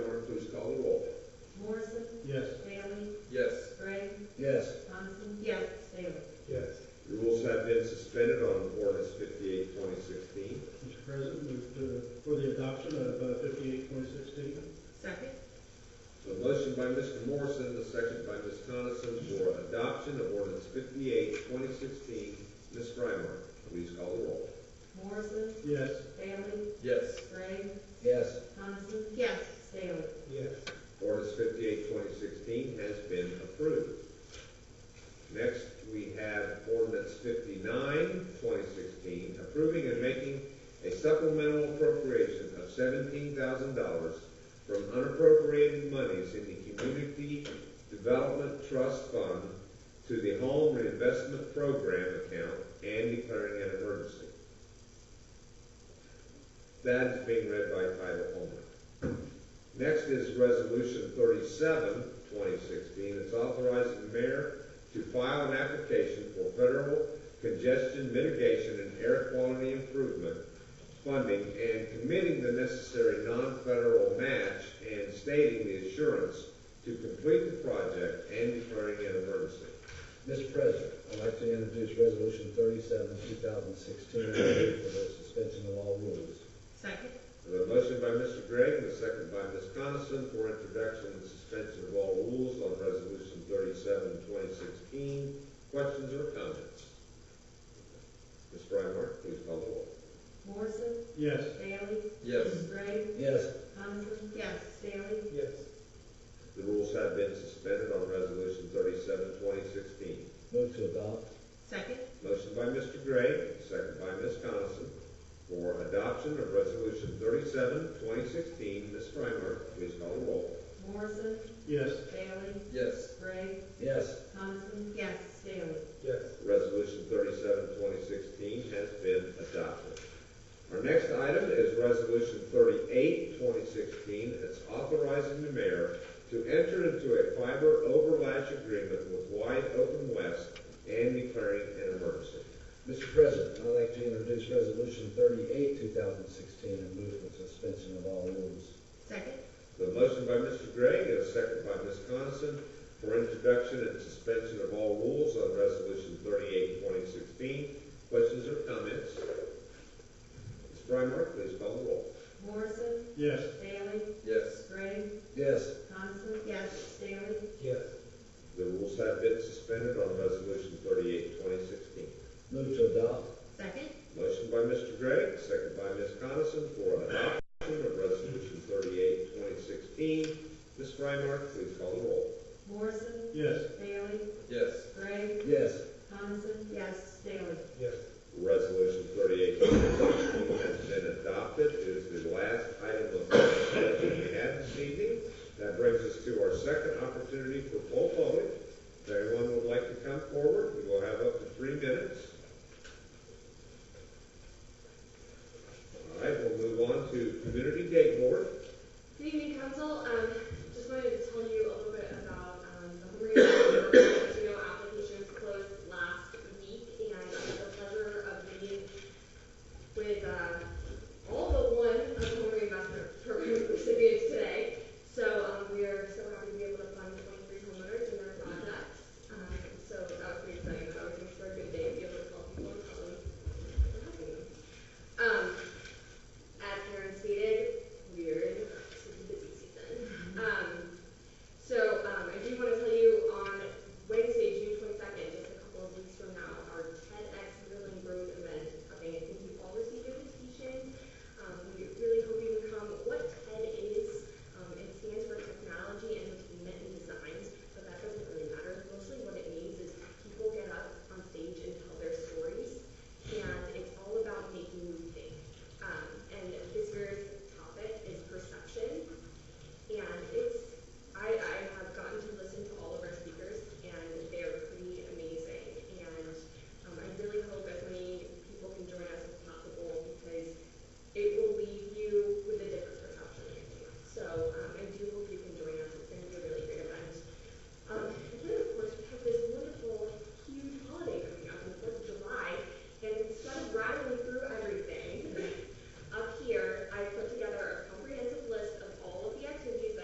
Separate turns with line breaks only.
uh,
by Mr. Morrison, the second by Ms. Coniston for adoption of ordinance 58-2016. Ms. Frymer, please call the roll.
Morrison,
Yes.
Bailey,
Yes.
Gray,
Yes.
Coniston,
yes,
Bailey.
Yes.
Ordinance 58-2016 has been approved. Next, we have ordinance 59-2016 approving and making a supplemental appropriation of seventeen thousand dollars from unappropriated monies in the Community Development Trust Fund to the Home Reinvestment Program account and declaring an emergency. That is being read by title only. Next is Resolution 37, 2016. It's authorizing the mayor to file an application for federal congestion mitigation and air quality improvement funding and committing the necessary non-federal match and stating the assurance to complete the project and declaring an emergency.
Mr. President, I'd like to introduce Resolution thirty-seven, two thousand sixteen, and move for the suspension of all rules.
second,
The motion by Mr. Gregg, and a second by Ms. Coniston for introduction and suspension of all rules on Resolution 37, 2016. Questions or comments? Ms. Frymark, please call the roll.
Morrison,
Yes.
Bailey,
Yes.
Gray,
Yes.
Coniston,
yes,
Bailey.
Yes.
The rules have been suspended on Resolution 37, 2016.
Move to adopt.
second,
Motion by Mr. Gray, second by Ms. Coniston, for adoption of Resolution 37, 2016. Ms. Frymark, please call the roll.
Morrison,
Yes.
Bailey,
Yes.
Gray,
Yes.
Coniston,
yes,
Bailey.
Yes.
Resolution 37, 2016 has been adopted. Our next item is Resolution 38, 2016. It's authorizing the mayor to enter into a fiber overlash agreement with Wide Open West and declaring an emergency.
Mr. President, I'd like to introduce Resolution thirty-eight, two thousand sixteen, and move for the suspension of all rules.
second,
The motion by Mr. Gregg and a second by Ms. Coniston for introduction and suspension of all rules on Resolution 38, 2016. Questions or comments? Ms. Frymark, please call the roll.
Morrison,
Yes.
Bailey,
Yes.
Gray,
Yes.
Coniston,
yes,
Bailey.
Yes.
The rules have been suspended on Resolution 38, 2016.
Move to adopt.
second,
Motion by Mr. Gregg, second by Ms. Coniston for adoption of Resolution 38, 2016. Ms. Frymark, please call the roll.
Morrison,
Yes.
Bailey,
Yes.
Gray,
Yes.
Coniston,
yes,
Bailey.
Yes.
Resolution 38, 2016 has been adopted. It is the last item of business that we have this evening. That brings us to our second opportunity for poll voting. If anyone would like to come forward, we will have up to three minutes. All right, we'll move on to Community Day Board.
Good evening, council. Um, uh, um, Um, Um,